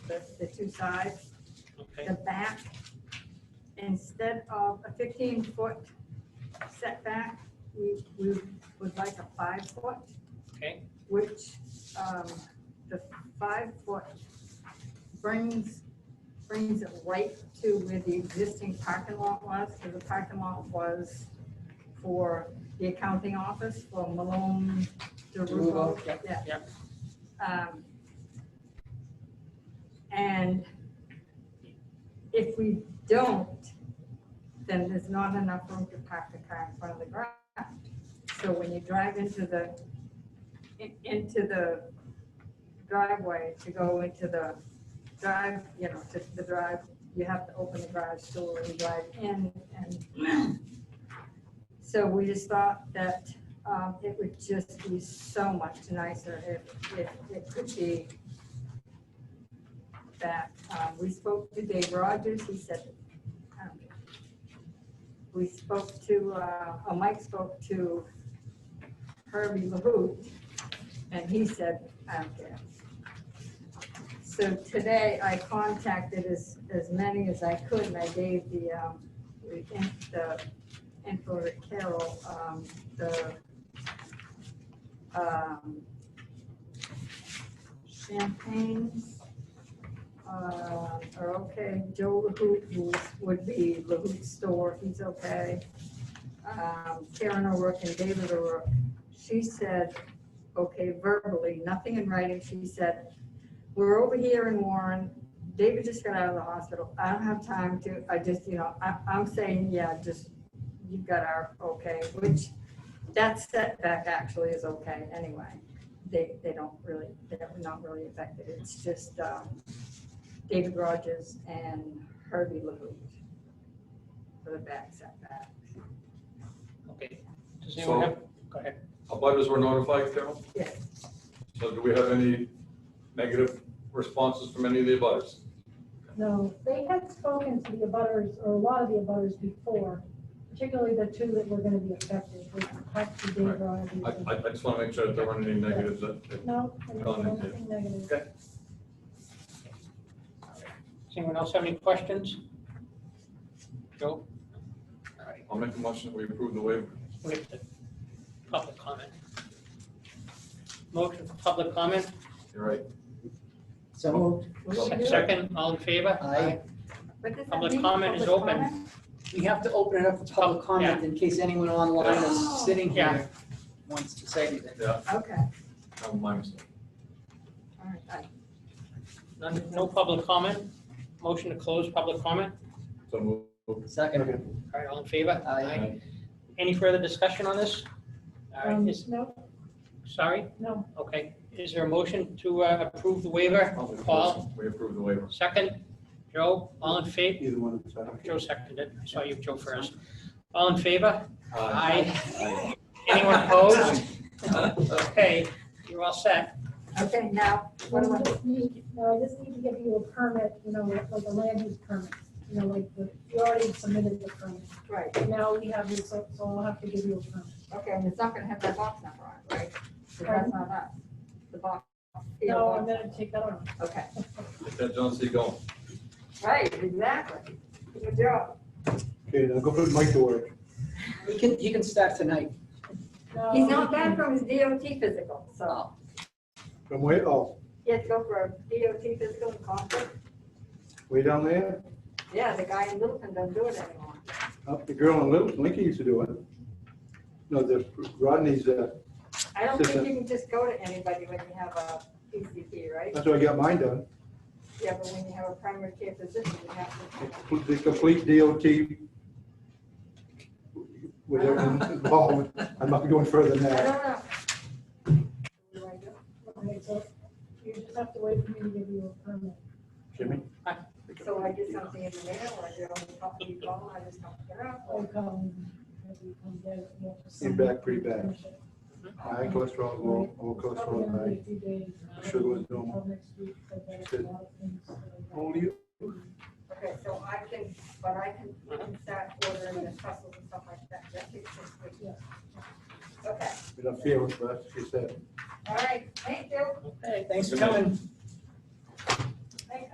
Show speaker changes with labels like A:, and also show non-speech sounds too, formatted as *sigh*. A: the, the two sides,
B: Okay,
A: the back. Instead of a fifteen foot setback, we, we would like a five foot,
B: okay,
A: which, um, the five foot brings, brings it right to where the existing parking lot was, because the parking lot was for the accounting office for Malone, DeRulo.
B: DeRulo, yep,
A: yeah.
B: yep.
A: Um, And if we don't, then there's not enough room to park the car in front of the garage. So when you drive into the, in- into the driveway to go into the drive, you know, to the drive, you have to open the garage door and drive in and. *clears throat* So we just thought that um, it would just be so much nicer if, if it could be that, um, we spoke to Dave Rogers, he said, um, we spoke to, uh, oh, Mike spoke to Herbie LaHoot, and he said, um, I don't care. So today I contacted as, as many as I could, and I gave the, um, the in- the info to Carol, um, the, um, champagnes, uh, are okay. Joe LaHoot who would be LaHoot Store, he's okay. Um, Karen O'Rourke and David O'Rourke, she said, okay, verbally, nothing in writing, she said, we're over here in Warren, David just got out of the hospital, I don't have time to, I just, you know, I, I'm saying, yeah, just, you've got our, okay, which, that setback actually is okay anyway. They, they don't really, they're not really affected, it's just, um, David Rogers and Herbie LaHoot for the back setback.
B: okay. Does anyone
C: So-
B: have, go ahead.
C: Abutters were notified, Carol?
A: Yes.
C: So do we have any negative responses from any of the abutters?
D: No, they had spoken to the abutters, or a lot of the abutters before, particularly the two that were gonna be affected, which Husky Dave
C: Right.
D: Rogers.
C: I, I I just want to make sure that there weren't any negatives that, that-
D: No, I didn't
C: Gone,
D: see
C: okay.
D: anything negative.
B: Does anyone else have any questions? Joe? All right,
C: I'll make a motion that we approve the waiver.
B: we have the public comment. Motion for public comment,
C: You're right.
E: So moved.
B: second, all in favor?
E: Aye.
A: What does that
B: Public
A: mean,
B: comment is
A: public
B: open.
A: comment?
E: We have to open it up for public comment in case anyone online is sitting here wants to say anything.
C: Yeah,
A: Okay, all
C: that was my mistake.
A: right, I-
B: None, no public comment, motion to close public comment,
C: So move.
E: Second.
B: all right, all in favor?
E: Aye.
B: Any further discussion on this? All
D: Um,
B: right, is,
D: No,
B: sorry,
D: no,
B: okay, is there a motion to uh, approve the waiver?
C: I'll make a
B: Paul?
C: motion. We approve the waiver.
B: Second, Joe, all in favor?
F: Either one of us, I don't care.
B: Joe seconded, I saw you, Joe first. All in favor?
C: Aye.
B: Anyone opposed? Okay, you're all set.
A: Okay, now, what do
D: I
A: I,
D: just need, no, I just need to give you a permit, you know, like a land use permit, you know, like, the- you already submitted the permit.
A: right,
D: Now we have this, so so we'll have to give you a permit.
A: okay, and it's not gonna have that box number on, it, right? 'Cause that's not us, the box. field
D: No, I'm
A: box.
D: gonna take that on. *laughs*
A: Okay,
C: Get that John C. going.
A: right, exactly. Good job.
F: Okay, now go put Mike to work.
E: He can, he can start tonight.
D: No,
A: He's not back from his DOT physical, so
F: From way, oh,
A: he had to go for a DOT physical in Concord.
F: way down there,
A: Yeah, the guy in Littleton doesn't do it anymore.
F: up the girl in Littleton, Lincoln used to do it. No, the Rodney's, uh,
A: I don't think
F: Sister.
A: you can just go to anybody when you have a PCP, right?
F: that's how I got mine done,
A: Yeah, but when you have a primary care physician, you have to.
F: the complete DOT. With
E: *laughs*
F: everyone involved, I'm not going further than
A: I
F: that.
A: don't know. What do I do?
D: Okay, so you just have to wait for me to give you a permit.
F: Jimmy?
A: So I get something in the mail, I get on the property phone, I just don't get up.
D: I come, maybe come get it, you know, just
F: Came
D: send
F: back pretty
D: it.
F: bad. High cholesterol, low, low
D: It's probably
F: cholesterol,
D: gonna be
F: high.
D: a few days.
F: Sugar was normal.
D: Until next week, but there's a lot of things that are-
F: Only you?
A: Okay, so I can, but I can, I can start ordering the pretzels and stuff like that. That takes six weeks.
D: Yeah.
A: Okay,
F: We're not feeling, but that's what she said.
A: all right, thank you.
E: Thanks for coming.